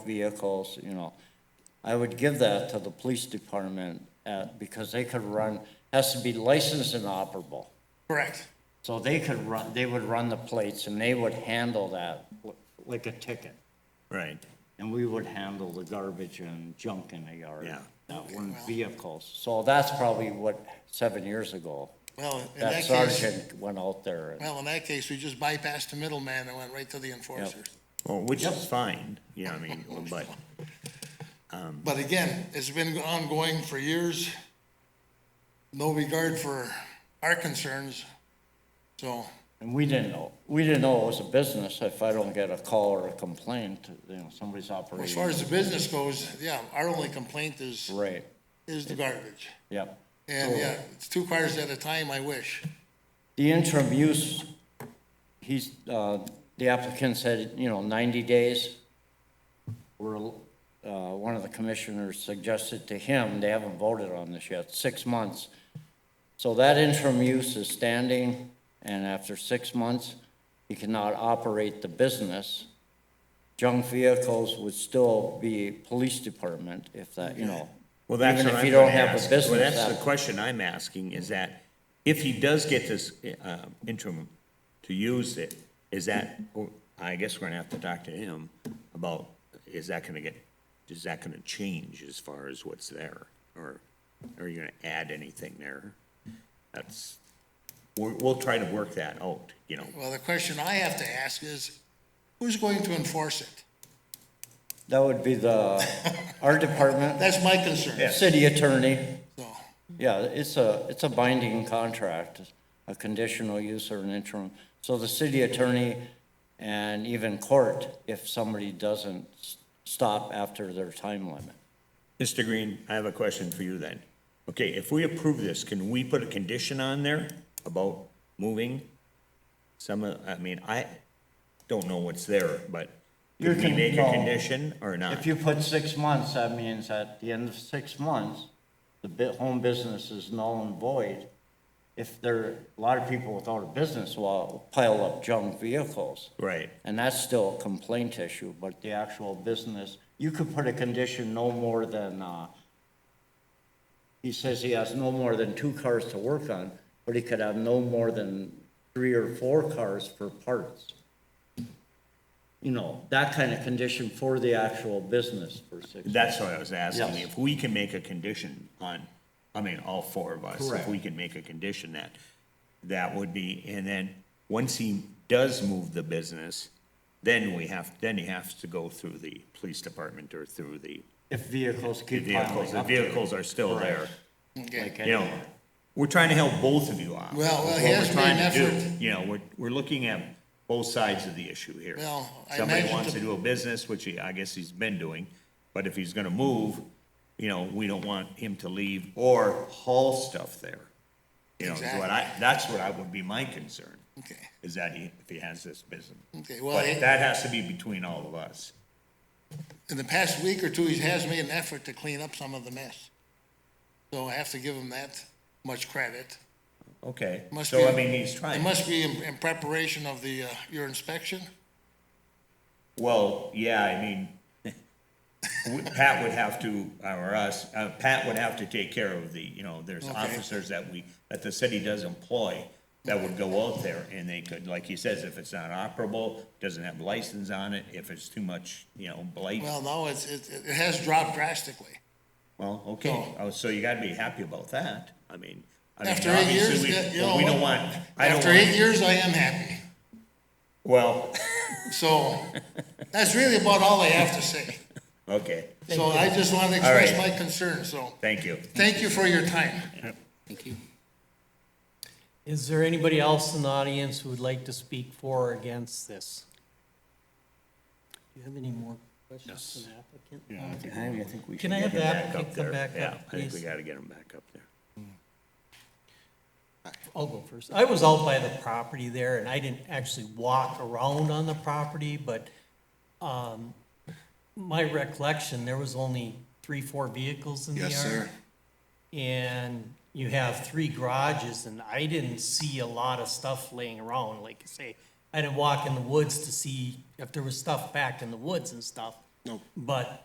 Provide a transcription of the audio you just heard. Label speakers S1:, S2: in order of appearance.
S1: vehicles, you know. I would give that to the police department at, because they could run, has to be licensed and operable.
S2: Correct.
S1: So they could run, they would run the plates and they would handle that like a ticket.
S3: Right.
S1: And we would handle the garbage and junk in the yard.
S3: Yeah.
S1: That weren't vehicles. So that's probably what, seven years ago,
S2: Well, in
S1: that
S2: that case,
S1: sergeant went out there. and-
S2: well, in that case, we just bypassed the middleman and went right to the enforcer.
S3: Well, which is fine, you know, I mean, but,
S2: But again, it's been ongoing for years. No regard for our concerns. So,
S1: And we didn't know, we didn't know it was a business if I don't get a call or a complaint, you know, somebody's operating.
S2: as far as the business goes, yeah, our only complaint is,
S1: Right,
S2: is the garbage.
S1: yep.
S2: And yeah, it's two cars at a time, I wish.
S1: The interim use, he's, uh, the applicant said, you know, 90 days. We're, uh, one of the commissioners suggested to him, they haven't voted on this yet, six months. So that interim use is standing, and after six months, he cannot operate the business. Junk vehicles would still be police department if that, you know.
S3: well, that's
S1: Even
S3: what
S1: if
S3: I'm
S1: you don't
S3: gonna
S1: have a
S3: ask. Well,
S1: business
S3: that's
S1: app-
S3: the question I'm asking, is that if he does get this, uh, interim to use it, is that, oh, I guess we're gonna have to talk to him about, is that gonna get, is that gonna change as far as what's there? Or are you gonna add anything there? That's, we'll, we'll try to work that out, you know?
S2: Well, the question I have to ask is, who's going to enforce it?
S1: That would be the, our department,
S2: That's my concern,
S1: city attorney.
S2: so.
S1: Yeah, it's a, it's a binding contract, a conditional use or an interim. So the city attorney and even court, if somebody doesn't s- stop after their time limit.
S3: Mr. Green, I have a question for you then. Okay, if we approve this, can we put a condition on there about moving some, of? I mean, I don't know what's there, but
S1: You
S3: could we
S1: can-
S3: make a
S1: no.
S3: condition or
S1: If
S3: not?
S1: you put six months, that means at the end of six months, the bi- home business is null and void. If there, a lot of people without a business will pile up junk vehicles.
S3: Right,
S1: And that's still a complaint issue, but the actual business, you could put a condition no more than, uh, he says he has no more than two cars to work on, but he could have no more than three or four cars for parts. You know, that kind of condition for the actual business for six.
S3: that's what I was asking.
S1: Yes.
S3: If we can make a condition on, I mean, all four of us, if
S1: Correct.
S3: we can make a condition that, that would be, and then, once he does move the business, then we have, then he has to go through the police department or through the
S1: If vehicles
S3: The
S1: keep
S3: vehicles,
S1: piling
S3: the
S1: up. there.
S3: vehicles are still there.
S2: Okay.
S1: Like
S3: You know, we're trying to help both of you out.
S2: Well, well,
S3: That's
S2: he
S3: what
S2: has
S3: we're trying
S2: made
S3: to
S2: an
S3: do. You know, we're, we're looking at both sides of the issue here.
S2: Well, I
S3: Somebody
S2: imagine
S3: wants
S2: the-
S3: to do a business, which he, I guess he's been doing, but if he's gonna move, you know, we don't want him to leave or haul stuff there. You know, is what I, that's what I would be my concern,
S2: Okay.
S3: is that he, if he has this business.
S2: Okay, well,
S3: But
S2: he-
S3: that has to be between all of us.
S2: in the past week or two, he has made an effort to clean up some of the mess. So I have to give him that much credit.
S3: Okay,
S2: Must
S3: so I
S2: be-
S3: mean, he's
S2: It
S3: trying.
S2: must be in, in preparation of the, uh, your inspection.
S3: Well, yeah, I mean, w- Pat would have to, or us, uh, Pat would have to take care of the, you know, there's
S2: Okay.
S3: officers that we, that the city does employ that would go out there and they could, like he says, if it's not operable, doesn't have license on it, if it's too much, you know, blight,
S2: Well, no, it's, it, it has dropped drastically.
S3: well, okay, oh, so you gotta be happy about that, I mean. I mean,
S2: After eight
S3: obviously,
S2: years,
S3: we-
S2: yeah, you
S3: well,
S2: know
S3: We don't
S2: what?
S3: want, I don't
S2: After eight
S3: want,
S2: years, I am happy.
S3: well,
S2: So that's really about all I have to say.
S3: okay,
S2: So I just want to express
S3: right.
S2: my concern, so
S3: thank you.
S2: thank you for your time.
S4: Is there anybody else in the audience who would like to speak for or against this? Do you have any more questions for the applicant?
S3: I think we
S4: Can should I have get the him back applicant up come there. back up,
S3: Yeah, I think we
S4: please?
S3: gotta get him back up there.
S4: I'll go first. I was out by the property there, and I didn't actually walk around on the property, but um, my recollection, there was only three, four vehicles in the yard.
S5: Yes, sir.
S4: And you have three garages, and I didn't see a lot of stuff laying around, like you say. I didn't walk in the woods to see if there was stuff packed in the woods and stuff.
S2: Nope.
S4: But